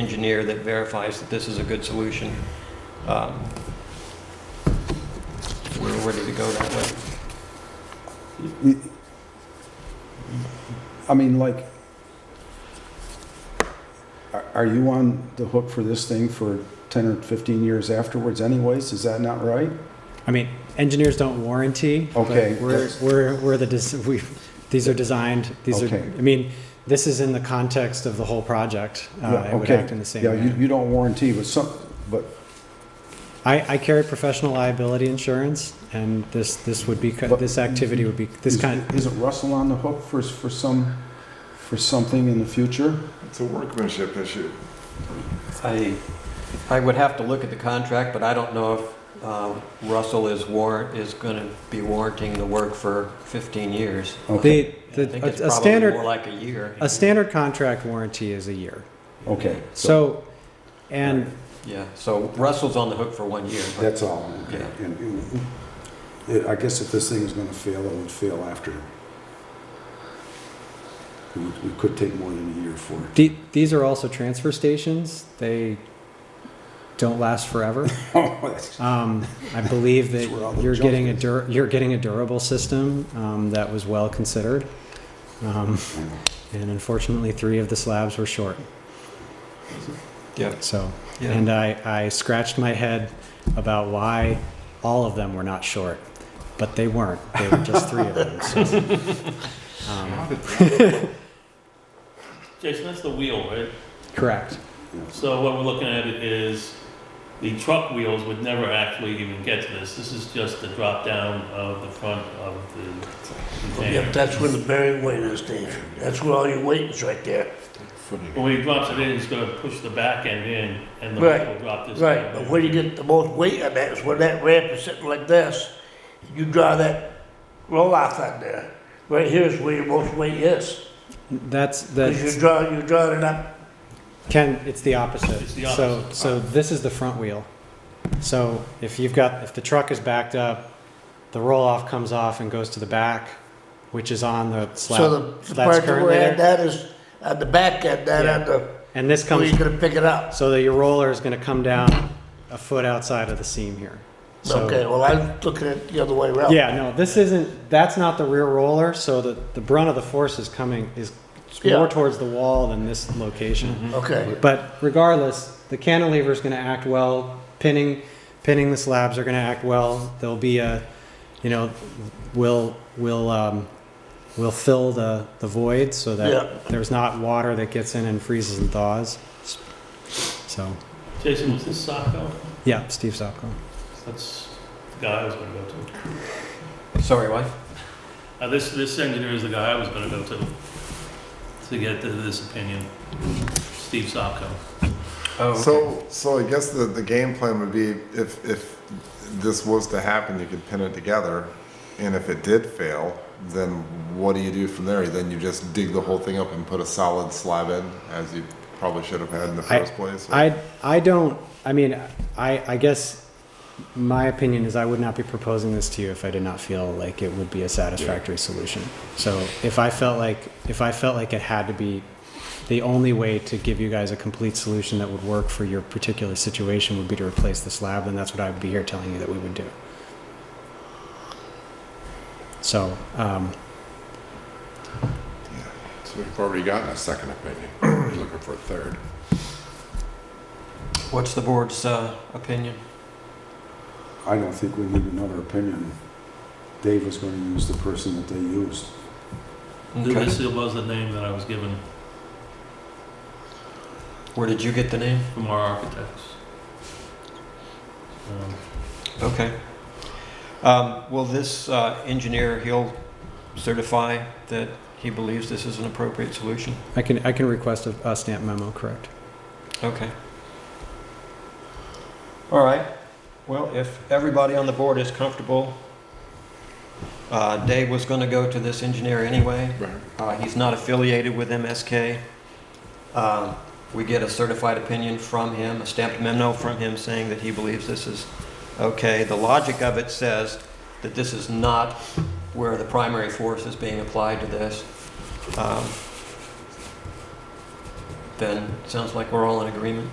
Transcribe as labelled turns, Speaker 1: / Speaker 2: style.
Speaker 1: engineer that verifies that this is a good solution. Um, We're ready to go that way.
Speaker 2: It- I mean, like, are- are you on the hook for this thing for 10 or 15 years afterwards anyways? Is that not right?
Speaker 3: I mean, engineers don't warranty. but
Speaker 2: Okay,
Speaker 3: We're,
Speaker 2: that's-
Speaker 3: we're, we're the, des- we, these are designed, these are,
Speaker 2: Okay.
Speaker 3: I mean, this is in the context of the whole project. Uh,
Speaker 2: Yeah,
Speaker 3: It would
Speaker 2: okay.
Speaker 3: act in the same
Speaker 2: Yeah, you-
Speaker 3: way.
Speaker 2: you don't warranty, but some, but,
Speaker 3: I, I carry professional liability insurance and this, this would be, co-
Speaker 2: But-
Speaker 3: this activity would be, this
Speaker 2: is-
Speaker 3: kind,
Speaker 2: isn't Russell on the hook for, for some, for something in the future?
Speaker 4: It's a workmanship issue.
Speaker 1: I, I would have to look at the contract, but I don't know if uh, Russell is warrant, is going to be warranting the work for 15 years.
Speaker 2: Okay,
Speaker 3: the,
Speaker 1: I think
Speaker 3: the,
Speaker 1: it's
Speaker 3: a- a
Speaker 1: probably more
Speaker 3: standard,
Speaker 1: like a year.
Speaker 3: a standard contract warranty is a year.
Speaker 2: okay.
Speaker 3: So, and
Speaker 1: Yeah, so Russell's on the hook for one year. but-
Speaker 2: That's all.
Speaker 1: Yeah.
Speaker 2: And- and- it- I guess if this thing is going to fail, it would fail after. We we could take more than a year for it.
Speaker 3: the, these are also transfer stations. They don't last forever.
Speaker 2: Oh, that's-
Speaker 3: Um, I believe
Speaker 2: That's where all
Speaker 3: that
Speaker 2: the
Speaker 3: you're
Speaker 2: junk
Speaker 3: getting a
Speaker 2: is.
Speaker 3: dur- you're getting a durable system um, that was well considered, um, and unfortunately, three of the slabs were short.
Speaker 1: Yeah.
Speaker 3: So,
Speaker 1: Yeah.
Speaker 3: and I, I scratched my head about why all of them were not short, but they weren't. They were just three of them. So, um,
Speaker 5: Jason, that's the wheel, right?
Speaker 3: correct.
Speaker 5: So what we're looking at is the truck wheels would never actually even get to this. This is just the drop down of the front of the
Speaker 6: Yep,
Speaker 5: container.
Speaker 6: that's where the bearing weight is, Dave. That's where all your weight is, right there.
Speaker 5: But when he drops it in, he's gonna push the back end in and the
Speaker 6: Right,
Speaker 5: wheel will drop this
Speaker 6: Right,
Speaker 5: down.
Speaker 6: but where you get the most weight on that is where that ramp is sitting like this. You draw that roll off on there. Right here is where your most weight is.
Speaker 3: That's
Speaker 6: Because
Speaker 3: that's
Speaker 6: you draw, you draw it up.
Speaker 3: Ken, it's the opposite.
Speaker 5: It's the
Speaker 3: So,
Speaker 5: opposite. Ah.
Speaker 3: so this is the front wheel. So if you've got, if the truck is backed up, the roll-off comes off and goes to the back, which is on the
Speaker 6: So
Speaker 3: slab
Speaker 6: the- the
Speaker 3: that's
Speaker 6: part that we're
Speaker 3: currently
Speaker 6: at,
Speaker 3: there.
Speaker 6: that is on the back end, that
Speaker 3: Yeah.
Speaker 6: on the,
Speaker 3: And this
Speaker 6: where
Speaker 3: comes,
Speaker 6: you're gonna pick it up.
Speaker 3: so that your roller is gonna come down a foot outside of the seam here.
Speaker 6: Okay,
Speaker 3: So,
Speaker 6: well, I'm looking at it the other way around.
Speaker 3: yeah, no, this isn't, that's not the rear roller, so the, the brunt of the force is coming, is
Speaker 6: Yeah.
Speaker 3: more towards the wall than this location.
Speaker 6: Okay,
Speaker 3: But regardless, the cantilever is going to act well. Pinning, pinning the slabs are going to act well. There'll be a, you know, will will um, will fill the the void so that
Speaker 6: Yeah.
Speaker 3: there's not water that gets in and freezes and thaws. So
Speaker 5: Jason, was this Sacco?
Speaker 3: yeah, Steve Sopko.
Speaker 5: That's the guy I was gonna go to.
Speaker 1: Sorry, what?
Speaker 5: Uh, this, this engineer is the guy I was gonna go to, to get to this opinion. Steve Sacco.
Speaker 1: Oh, okay.
Speaker 4: So, so I guess the, the game plan would be if, if this was to happen, you could pin it together. And if it did fail, then what do you do from there? Then you just dig the whole thing up and put a solid slab in, as you probably should have had in the
Speaker 3: I-
Speaker 4: first place? or-
Speaker 3: I I don't. I mean, I I guess my opinion is I would not be proposing this to you if I did not feel like it would be a satisfactory solution. So if I felt like if I felt like it had to be the only way to give you guys a complete solution that would work for your particular situation would be to replace the slab, then that's what I would be here telling you that we would do. So, um,
Speaker 7: So we've already gotten a second opinion. We're looking for a third.
Speaker 1: What's the board's uh, opinion?
Speaker 2: I don't think we need another opinion. Dave was going to use the person that they used.
Speaker 1: Okay.
Speaker 5: This was the name that I was given
Speaker 1: Where did you get the name?
Speaker 5: from our architects. Um,
Speaker 1: Okay. Um, Will this uh, engineer, he'll certify that he believes this is an appropriate solution?
Speaker 3: I can I can request a, a stamp memo, correct?
Speaker 1: Okay. All right. Well, if everybody on the board is comfortable, uh, Dave was going to go to this engineer anyway.
Speaker 7: Right.
Speaker 1: Uh, He's not affiliated with MSK. Uh, We get a certified opinion from him, a stamped memo from him saying that he believes this is okay. The logic of it says that this is not where the primary force is being applied to this. Um, then it sounds like we're all in agreement.